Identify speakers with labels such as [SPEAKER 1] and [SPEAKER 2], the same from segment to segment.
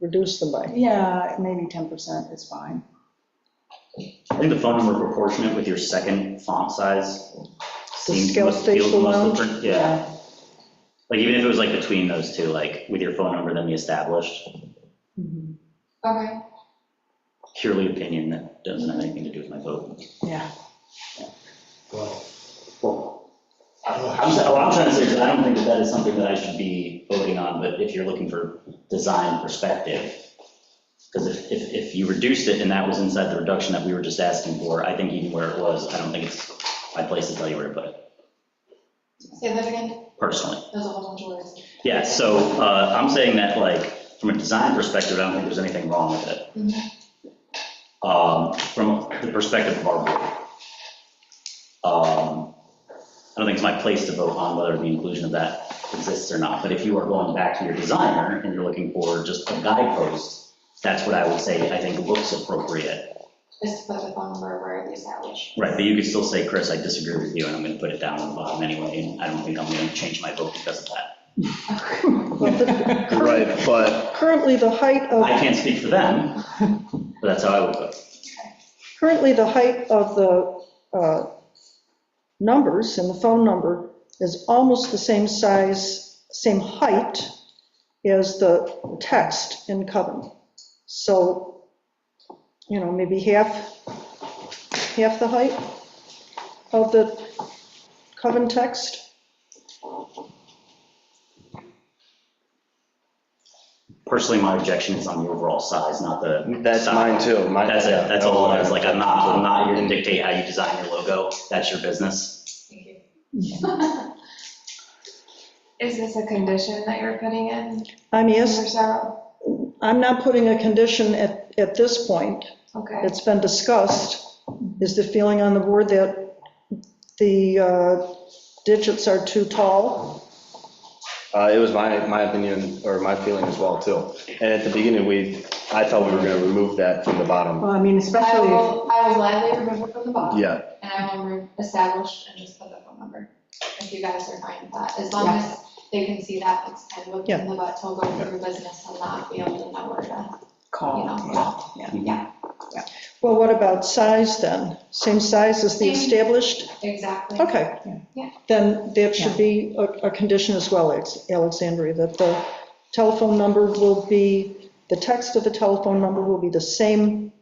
[SPEAKER 1] reduce them by.
[SPEAKER 2] Yeah, maybe 10% is fine.
[SPEAKER 3] I think the phone number proportionate with your second font size
[SPEAKER 1] The
[SPEAKER 3] seems
[SPEAKER 1] Scout
[SPEAKER 3] most, feels
[SPEAKER 1] Station
[SPEAKER 3] the
[SPEAKER 1] Lounge,
[SPEAKER 3] most, appro- yeah. Like even if it was like between those two, like with your phone number, then the established,
[SPEAKER 2] Mhm.
[SPEAKER 1] Mm-hmm.
[SPEAKER 4] Okay,
[SPEAKER 3] purely opinion, that doesn't have anything to do with my vote.
[SPEAKER 2] Yeah,
[SPEAKER 5] Well,
[SPEAKER 3] Well, I'm, so- what I'm trying to say is I don't think that that is something that I should be voting on, but if you're looking for design perspective, because if, if, if you reduced it and that was inside the reduction that we were just asking for, I think even where it was, I don't think it's my place to tell you where to put it,
[SPEAKER 4] say that again,
[SPEAKER 3] personally.
[SPEAKER 4] there's a whole bunch of words.
[SPEAKER 3] Yeah, so uh, I'm saying that like, from a design perspective, I don't think there's anything wrong with it.
[SPEAKER 4] Mhm.
[SPEAKER 3] Um, From the perspective of our board. Um, I don't think it's my place to vote on whether the inclusion of that exists or not, but if you are going back to your designer and you're looking for just a guidepost, that's what I would say I think looks appropriate.
[SPEAKER 4] Just put the phone number where the established.
[SPEAKER 3] Right, but you could still say, Chris, I disagree with you, and I'm gonna put it down on the bottom anyway, and I don't think I'm gonna change my vote because of that.
[SPEAKER 1] Well, the-
[SPEAKER 6] Right, but
[SPEAKER 1] Currently, the height
[SPEAKER 3] I
[SPEAKER 1] of,
[SPEAKER 3] can't speak for them, but that's how I would vote.
[SPEAKER 1] currently, the height of the uh, numbers and the phone number is almost the same size, same height as the text in Coven. So, you know, maybe half, half the height of the Coven text.
[SPEAKER 3] Personally, my objection is on the overall size, not the.
[SPEAKER 6] that's mine too. Mine-
[SPEAKER 3] That's it,
[SPEAKER 6] yeah,
[SPEAKER 3] that's all, I
[SPEAKER 6] mine.
[SPEAKER 3] was like, I'm not, I'm not here to dictate how you design your logo, that's your business.
[SPEAKER 4] Thank you. Is this a condition that you're putting in,
[SPEAKER 1] I'm
[SPEAKER 4] number
[SPEAKER 1] asking,
[SPEAKER 4] several?
[SPEAKER 1] I'm not putting a condition at, at this point.
[SPEAKER 4] Okay,
[SPEAKER 1] it's been discussed, is the feeling on the board that the uh, digits are too tall?
[SPEAKER 6] Uh, it was my, my opinion, or my feeling as well too. And at the beginning, we, I thought we were gonna remove that from the bottom.
[SPEAKER 2] well, I mean,
[SPEAKER 4] I
[SPEAKER 2] especially, if-
[SPEAKER 4] will, I will gladly remove it from the bottom.
[SPEAKER 6] Yeah,
[SPEAKER 4] And I will remove established and just put the phone number, if you guys are fine with that, as long
[SPEAKER 2] Yeah.
[SPEAKER 4] as they can see that it's kind of a pain in the butt to go through business and not be able to know where to, you
[SPEAKER 2] call, yeah.
[SPEAKER 4] know.
[SPEAKER 1] Well, what about size then? Same size as the
[SPEAKER 4] Same.
[SPEAKER 1] established?
[SPEAKER 4] Exactly.
[SPEAKER 1] Okay.
[SPEAKER 4] Yeah.
[SPEAKER 1] Then that should be a, a condition as well, Alex- Alexandria, that the telephone number will be, the text of the telephone number will be the same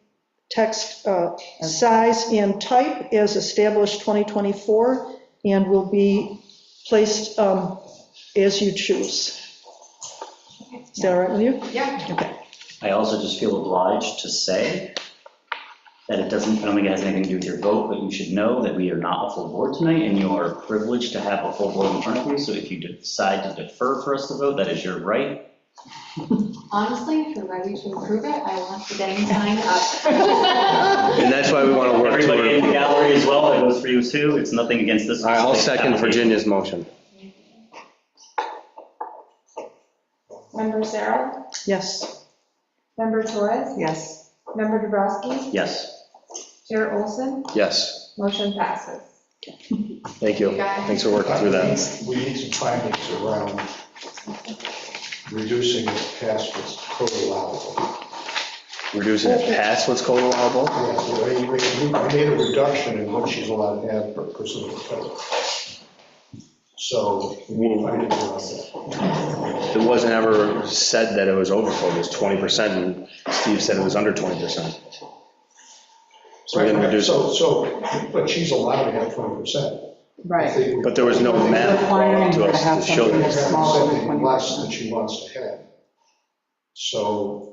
[SPEAKER 1] text, uh, size and type as established 2024, and will be placed um, as you choose. Is that all right with you?
[SPEAKER 4] Yeah.
[SPEAKER 1] Okay.
[SPEAKER 3] I also just feel obliged to say that it doesn't, I don't think it has anything to do with your vote, but you should know that we are not a full board tonight, and you are privileged to have a full board in front of you, so if you decide to defer for us to vote, that is your right.
[SPEAKER 4] Honestly, if you're ready to approve it, I want the dang sign up.
[SPEAKER 6] and that's why we want to work
[SPEAKER 3] Everybody in the
[SPEAKER 6] toward.
[SPEAKER 3] gallery as well, that goes for you too, it's nothing against this.
[SPEAKER 6] All right, I'll
[SPEAKER 3] specific
[SPEAKER 6] second
[SPEAKER 3] application.
[SPEAKER 6] Virginia's motion.
[SPEAKER 7] Member Sarah?
[SPEAKER 1] Yes.
[SPEAKER 7] Member Torres?
[SPEAKER 2] Yes,
[SPEAKER 7] Member Dubrowski?
[SPEAKER 3] Yes.
[SPEAKER 7] Chair Olson?
[SPEAKER 6] Yes,
[SPEAKER 7] Motion passes.
[SPEAKER 6] thank you. Thanks for working through
[SPEAKER 5] I
[SPEAKER 6] that.
[SPEAKER 5] think we need some findings around reducing it past what's code allowable.
[SPEAKER 6] Reducing it past what's code allowable.
[SPEAKER 5] Yeah, so they- they- we made a reduction in what she's allowed to have per person of the code. So we need findings around that.
[SPEAKER 6] It wasn't ever said that it was overflow, it was 20%, and Steve said it was under 20%. So we're gonna reduce it.
[SPEAKER 5] So, so, but she's allowed to have 20%.
[SPEAKER 2] right.
[SPEAKER 6] But there was no map
[SPEAKER 2] Requiring
[SPEAKER 6] to
[SPEAKER 2] her
[SPEAKER 6] us
[SPEAKER 2] have
[SPEAKER 6] to show
[SPEAKER 2] something
[SPEAKER 5] She
[SPEAKER 6] that.
[SPEAKER 5] has
[SPEAKER 2] that's smaller than
[SPEAKER 5] something less than
[SPEAKER 2] 20%.
[SPEAKER 5] she wants to have. So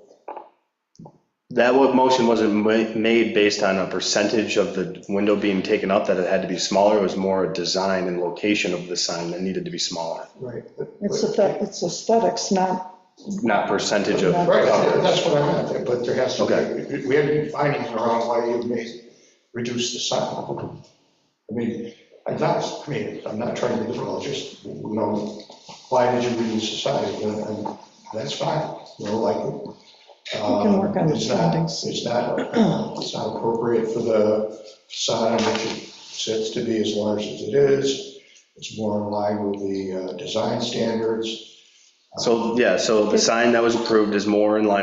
[SPEAKER 6] That wa- motion wasn't ma- made based on a percentage of the window being taken up, that it had to be smaller. It was more a design and location of the sign that needed to be smaller,
[SPEAKER 5] Right.
[SPEAKER 1] It's aesthet- it's aesthetics, not,
[SPEAKER 6] not percentage of
[SPEAKER 5] Right,
[SPEAKER 6] coverage.
[SPEAKER 5] that's what I meant, but there has to
[SPEAKER 6] Okay.
[SPEAKER 5] be, we have to be findings around why you may reduce the sign. I mean, I'm not, I mean, I'm not trying to be difficult, just, you know, why did you reduce the size? And- And that's fine, you know, like.
[SPEAKER 1] We can work on
[SPEAKER 5] uh, it's not-
[SPEAKER 1] findings.
[SPEAKER 5] It's not, it's not appropriate for the sign, which it sits to be as large as it is. It's more in line with the uh, design standards.
[SPEAKER 6] So, yeah, so the sign that was approved is more in line